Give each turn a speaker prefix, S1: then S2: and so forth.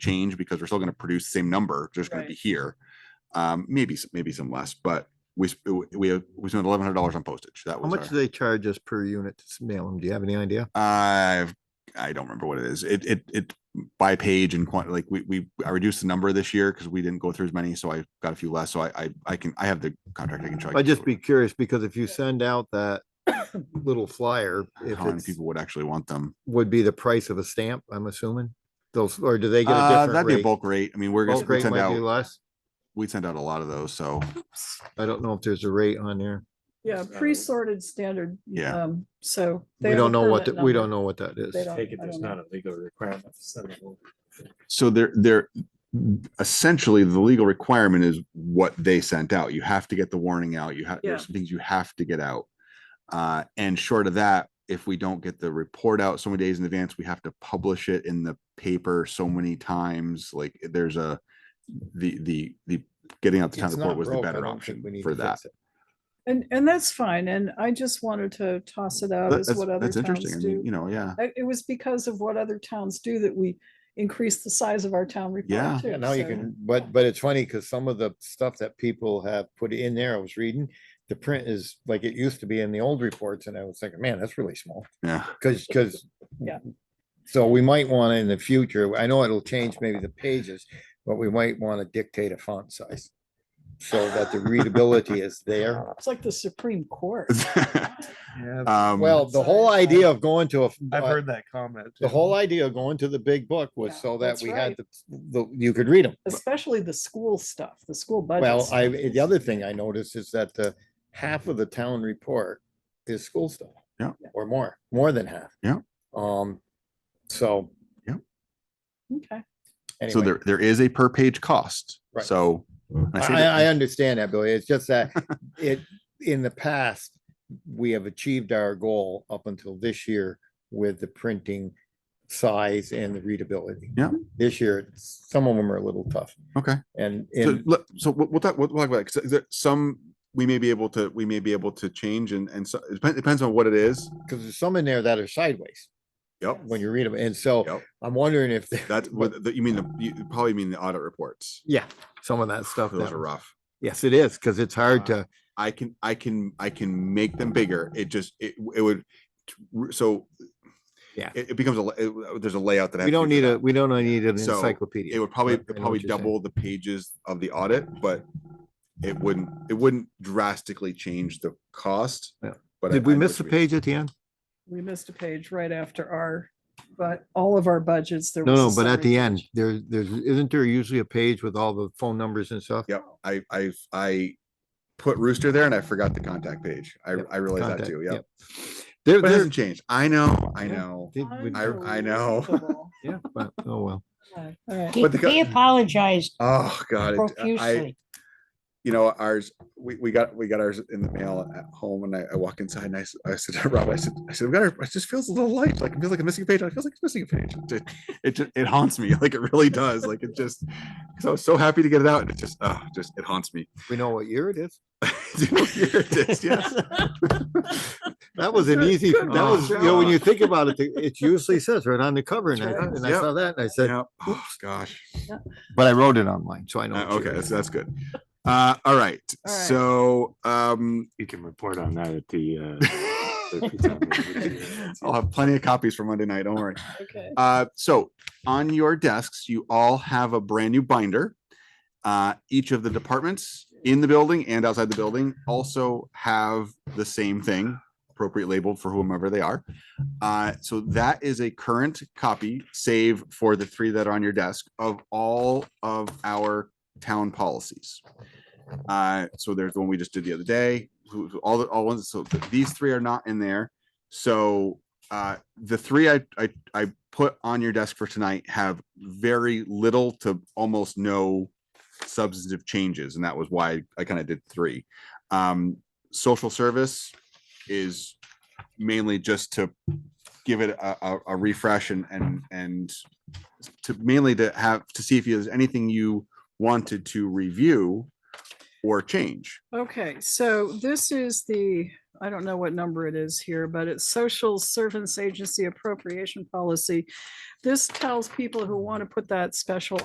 S1: change because we're still going to produce the same number, just going to be
S2: Right.
S1: here. Um, maybe, s- maybe some less, but we, sp- we, we spent eleven hundred dollars on postage. That
S3: How
S1: was.
S3: much
S1: our-
S3: do they charge us per unit to s- mail them? Do you have any idea?
S1: I've, I don't remember what it is. It, it, it by page and quantity, like we, we, I reduced the number this year because we didn't go through as many, so I got a few less. So I, I, I can, I have the contract. I can check.
S3: I'd just be curious because if you send out that little flyer, if
S1: How many
S3: it's,
S1: people would actually want them?
S3: would be the price of a stamp, I'm assuming? Those, or do they get a
S1: Uh,
S3: different
S1: that'd be a
S3: rate?
S1: bulk rate. I mean, we're gonna
S3: Bulk
S1: we
S3: rate
S1: send
S3: might be
S1: out,
S3: less.
S1: we send out a lot of those, so
S3: I don't know if there's a rate on there.
S2: Yeah,
S4: So-
S2: pre-sorted standard.
S1: Yeah.
S2: Um, so. they
S3: We
S2: have
S3: don't
S2: a
S3: know what,
S2: permit
S3: the- we
S2: number.
S3: don't know what that is.
S2: They don't-
S4: Take it,
S2: I
S4: there's
S2: don't know.
S4: not a legal requirement to send it over.
S1: So they're, they're essentially the legal requirement is what they sent out. You have to get the warning out. You have, there's
S2: Yeah.
S1: some things you have to get out. Uh, and short of that, if we don't get the report out so many days in advance, we have to publish it in the paper so many times. Like there's a, the, the, the getting out the town
S5: It's
S1: report
S5: not
S1: was the
S5: broke, I
S1: better
S5: don't think we
S1: option
S5: need
S1: for
S5: to
S1: that.
S5: fix it.
S2: And, and that's fine. And I just wanted to toss it out
S1: That-
S2: as
S1: That's,
S2: what other
S1: that's interesting.
S2: towns
S1: I
S2: do.
S1: mean, you know, yeah.
S2: I- It was because of what other towns do that we increased the size of our town
S1: Yeah.
S2: report.
S5: Yeah,
S2: too,
S5: now you
S2: so-
S5: can, but, but it's funny because some of the stuff that people have put in there, I was reading, the print is like it used to be in the old reports and I was thinking, man, that's really small.
S1: Yeah.
S5: Cause, cause.
S2: Yeah.
S5: So we might want to in the future, I know it'll change maybe the pages, but we might want to dictate a font size. So that the readability is there.
S2: It's like the Supreme Court.
S5: Uh,
S4: Yeah,
S1: Um,
S5: Well, the whole
S2: size.
S5: idea of going to a. f-
S4: I've
S5: uh,
S4: heard that comment.
S5: The
S4: too.
S5: whole idea of going to the big book
S2: Yeah,
S5: was so that
S2: that's
S5: we had
S2: right.
S5: the, the, you could read them.
S2: Especially the school stuff, the school budget.
S5: Well,
S2: stuff.
S5: I, the other thing I noticed is that the half of the town report is school stuff.
S1: Yeah.
S5: Or more, more than half.
S1: Yeah.
S5: Um, so
S2: Okay,
S1: So
S5: anyway,
S1: there, there is a per page cost.
S5: Right.
S1: So. and say
S5: I,
S1: that-
S5: I understand that, Billy. It's just that it, in the past, we have achieved our goal up until this year with the printing size and the readability.
S1: Yeah.
S5: This year, it's- some of them are a little tough
S1: Okay.
S5: and,
S1: So,
S5: and
S1: let- so we'll, we'll talk, we'll talk about, it, 'cause there- some, we may be able to, we may be able to change and, and so, it depends, depends on what it is.
S5: because there's some in there that are sideways
S1: Yep.
S5: when you read them. And so
S1: Yep.
S5: I'm wondering if. they're-
S1: That's what, the- you mean, the you probably mean the audit reports.
S3: Yeah, some of that stuff.
S1: Those
S3: that-
S1: are rough.
S3: Yes, it is, because it's hard
S1: Uh,
S3: to,
S1: I can, I can, I can make them bigger. It just, it, it would, so.
S3: Yeah.
S1: It, it becomes a, la- it- there's a layout that. I
S3: we
S1: have to
S3: don't need
S1: figure
S3: a, we don't need an
S1: So,
S3: encyclopedia.
S1: It would
S3: I
S1: probably, it'd
S3: know what
S1: probably
S3: you're saying.
S1: double the pages of the audit, but it wouldn't, it wouldn't drastically change the cost.
S3: Yeah.
S1: but I-
S3: Did we
S1: I know
S3: miss
S1: what
S3: the
S1: you mean.
S3: page at the end?
S2: we missed a page right after our, but all of our budgets, there
S3: No,
S2: was.
S3: no,
S2: a
S3: but at
S2: summary
S3: the end,
S2: page.
S3: there, there's, isn't there usually a page with all the phone numbers and stuff?
S1: Yep, I, I, I put Rooster there and I forgot the contact page. I,
S3: Yep,
S1: I realized that
S3: Contact,
S1: too, yep.
S3: There,
S1: But it
S3: there,
S1: hasn't changed. I know, I
S3: Yeah.
S1: know.
S3: did- we-
S1: I- I know.
S2: Unbelievable.
S3: yeah, but, oh, well.
S2: Yeah, All right.
S6: He,
S1: But the co-
S6: he apologized
S1: Oh, God, it- I,
S6: profusely.
S1: you know, ours, we, we got, we got ours in the mail at home and I, I walk inside and I, s- I said, to Rob, I said, I said, we got our, it just feels a little light, like it feels like a missing page. It feels like it's missing a page. It, it, ju- it haunts me, like it really does. Like it just, because I was so happy to get it out and it just, oh, just, it haunts me.
S3: We know what year it is.
S1: Here it is, yes.
S3: That was an
S2: Good-
S3: easy, that
S2: good
S3: was, you know, when you
S1: job.
S3: think about it, the- it usually says right on the cover and I,
S2: That's right.
S3: and I
S1: Yep.
S3: saw that and I said,
S1: Yeah. Oh, gosh.
S3: but I wrote it online, so I know.
S1: Uh,
S3: what year
S1: okay,
S3: it
S1: that's,
S3: is.
S1: that's good. Uh, all right,
S2: All right.
S1: so, um,
S7: You can report on that at the, uh, safety town meeting, which is-
S1: I'll have plenty of copies for Monday night, don't worry.
S2: Okay.
S1: Uh, so on your desks, you all have a brand new binder. Uh, each of the departments in the building and outside the building also have the same thing appropriate labeled for whomever they are. Uh, so that is a current copy, save for the three that are on your desk of all of our town policies. Uh, so there's the one we just did the other day, who, who- all the, all ones, so th- these three are not in there. So, uh, the three I, I, I put on your desk for tonight have very little to almost no substantive changes, and that was why I kind of did three. Um, social service is mainly just to give it a, a, a refresh and, and, and to mainly to have, to see if there's anything you wanted to review or change.
S2: Okay, so this is the I don't know what number it is here, but it's Social Service Agency Appropriation Policy. This tells people who want to put that special